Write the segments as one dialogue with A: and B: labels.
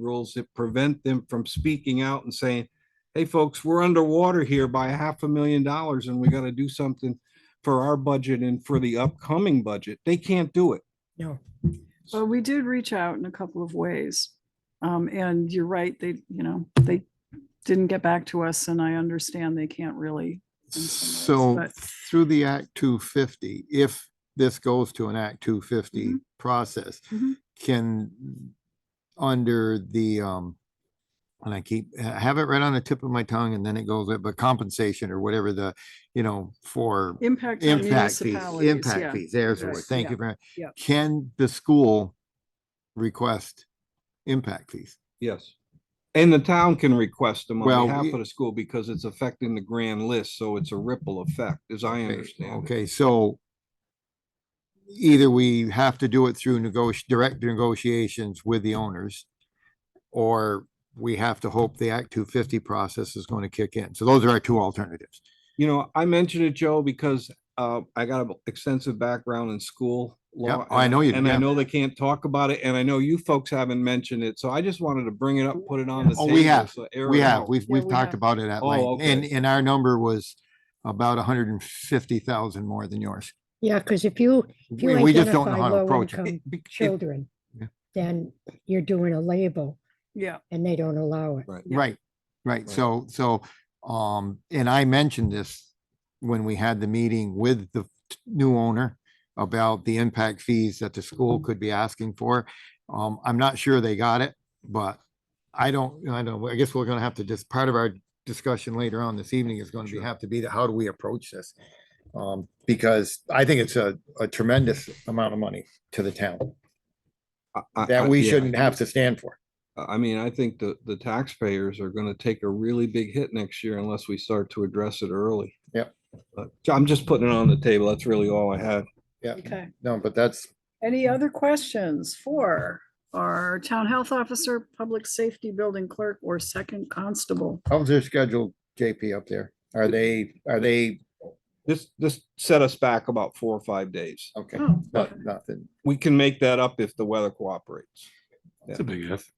A: rules that prevent them from speaking out and saying, hey, folks, we're underwater here by a half a million dollars and we got to do something for our budget and for the upcoming budget. They can't do it.
B: No.
C: Well, we did reach out in a couple of ways. Um, and you're right, they, you know, they didn't get back to us and I understand they can't really. in some
D: So
C: ways, but-
D: through the Act two fifty, if this goes to an Act two fifty
C: Mhm.
D: process,
C: Mhm.
D: can, under the, um, and I keep, I have it right on the tip of my tongue and then it goes, but compensation or whatever the, you know, for
C: Impact on
D: impact fees,
C: municipalities, yeah.
D: impact fees, there's the word.
C: Yes,
D: Thank
C: yeah,
D: you very,
C: yeah.
D: much. can the school request impact fees?
A: Yes. And the town can request them
D: Well,
A: on behalf
D: we-
A: of the school because it's affecting the grand list. So it's a ripple effect, as I
D: Okay,
A: understand it.
D: Okay, so either we have to do it through negoti, direct negotiations with the owners, or we have to hope the Act two fifty process is going to kick in. So those are our two alternatives.
A: You know, I mentioned it, Joe, because uh, I got an extensive background in school
D: Yeah,
A: law.
D: I
A: and-
D: know you-
A: And I
D: yeah.
A: know they can't talk about it, and I know you folks haven't mentioned it, so I just wanted to bring it up, put it on the
D: Oh,
A: table.
D: we have.
A: so
D: We
A: everyone
D: have,
A: knows.
D: we've,
C: Yeah,
D: we've
C: we
D: talked
C: have.
D: about it at
A: Oh,
D: length, and,
A: okay.
D: and our number was about hundred and fifty thousand more than yours.
B: Yeah, because if you, if you
D: We we just don't know how
B: identify
D: to approach it.
B: low-income
A: It- bec- it-
B: children,
D: Yeah.
B: then you're doing a label
C: Yeah,
B: and they don't allow it.
A: Right.
D: Right, right.
A: Right.
D: So, so, um, and I mentioned this when we had the meeting with the t- new owner about the impact fees that the school
A: Mm-hmm.
D: could be asking for. Um, I'm not sure they got it, but I don't, I don't, I guess we're gonna have to just, part of our discussion later on this evening is gonna be,
A: Sure.
D: have to be, the how do we approach this? Um, because I think it's a, a tremendous amount of money to the town
A: I- I- I-
D: that we
A: Uh, yeah.
D: shouldn't have to stand for.
A: I I mean, I think the, the taxpayers are gonna take a really big hit next year unless we start to address it early.
D: Yep.
A: But I'm just putting it on the table. That's really all I had.
D: Yeah,
C: okay.
D: no, but that's,
C: Any other questions for our town health officer, public safety building clerk, or second constable?
D: How's their schedule, JP, up there? Are they, are they,
A: This, this set us back about four or five days.
D: okay,
C: Oh,
A: Uh,
D: no-
C: okay.
D: nothing.
A: We can make that up if the weather cooperates.
E: That's a big if.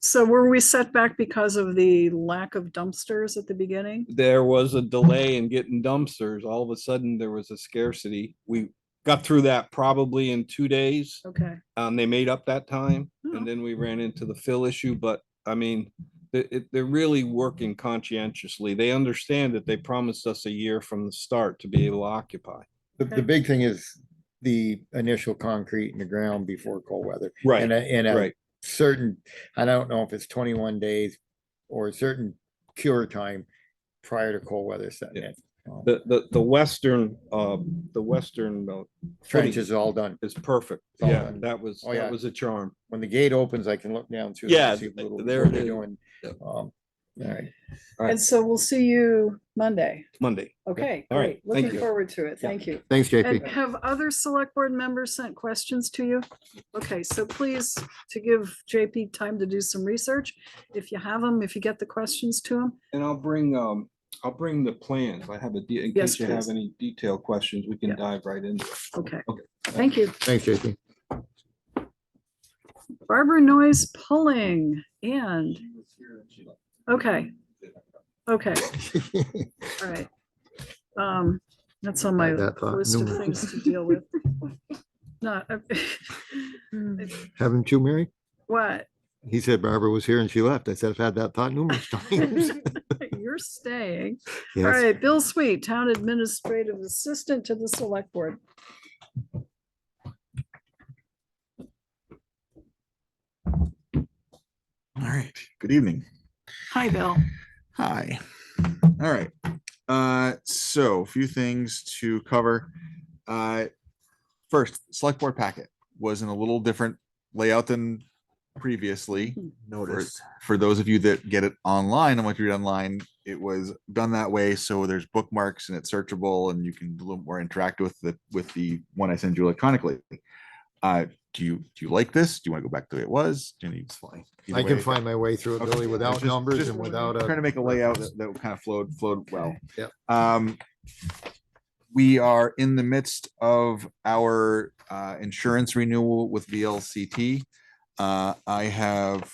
C: So were we set back because of the lack of dumpsters at the beginning?
A: there was a delay in getting dumpsters. All of a sudden, there was a scarcity. We got through that probably in two days.
C: Okay.
A: Um, they made up that time
C: Oh.
A: and then we ran into the fill issue, but I mean, they, it- they're really working conscientiously. They understand that they promised us a year from the start to be able to occupy.
D: The, the
C: Okay.
D: big thing is the initial concrete in the ground before cold weather. And a, and a
A: uh, Right.
D: certain, I don't know if it's twenty-one days or a certain cure time prior to cold weather setting
A: Yeah.
D: in. Um,
A: The, the, the western, uh, the western uh,
D: Trench is all done.
A: is perfect.
D: Oh,
A: Yeah,
D: and-
A: that was,
D: oh,
A: that
D: yeah.
A: was a charm.
D: When the gate opens, I can look down through. there
A: Yeah,
D: and see what little-
A: there
D: what
A: it
D: they're
A: is.
D: doing.
A: Yep.
D: Um, All right.
C: And so we'll see you Monday.
A: Monday.
C: Okay,
A: All right,
C: great.
A: thank
C: Looking
A: you.
C: forward to it. Thank you.
D: Thanks,
C: And have other select board members sent questions to you? Okay, so please, to give JP time to do some research, if you have them, if you get the questions to him.
A: And I'll bring, um, I'll bring the plans. I have a, de- in
C: Yes,
A: case you have
C: please.
A: any detailed questions, we
C: Yeah.
A: can dive right into. it.
C: Okay,
A: Okay.
C: thank you.
D: Thanks, JP.
C: Barbara Noise pulling and, okay, okay, all right. Um, that's on my
D: Had that thought
C: list of
D: numerous-
C: things to deal with. Not, uh,
D: Haven't you, Mary?
C: what?
D: He said Barbara was here and she left. I said, I've had that thought numerous times.
C: You're staying. All
D: Yes.
C: right, Bill Sweet, Town Administrative Assistant to the Select Board.
F: All right. Good evening.
C: Hi, Bill.
F: Hi. All right. Uh, so a few things to cover. Uh, first, select board packet was in a little different layout than previously. Noticed. For those of you that get it online and want to read online, it was done that way. So there's bookmarks and it's searchable and you can a little more interact with the, with the one I send you electronically. Uh, do you, do you like this? Do you want to go back to the way it was? Do you need?
D: I
F: Either
D: can
F: way.
D: find my way through it,
F: Okay,
D: Billy,
F: I was
D: without
F: just-
D: numbers
F: just
D: and without a.
F: Trying to make a layout that, that kind of flowed, flowed well.
D: Yep.
F: Um, we are in the midst of our, uh, insurance renewal with VLCT. Uh, I have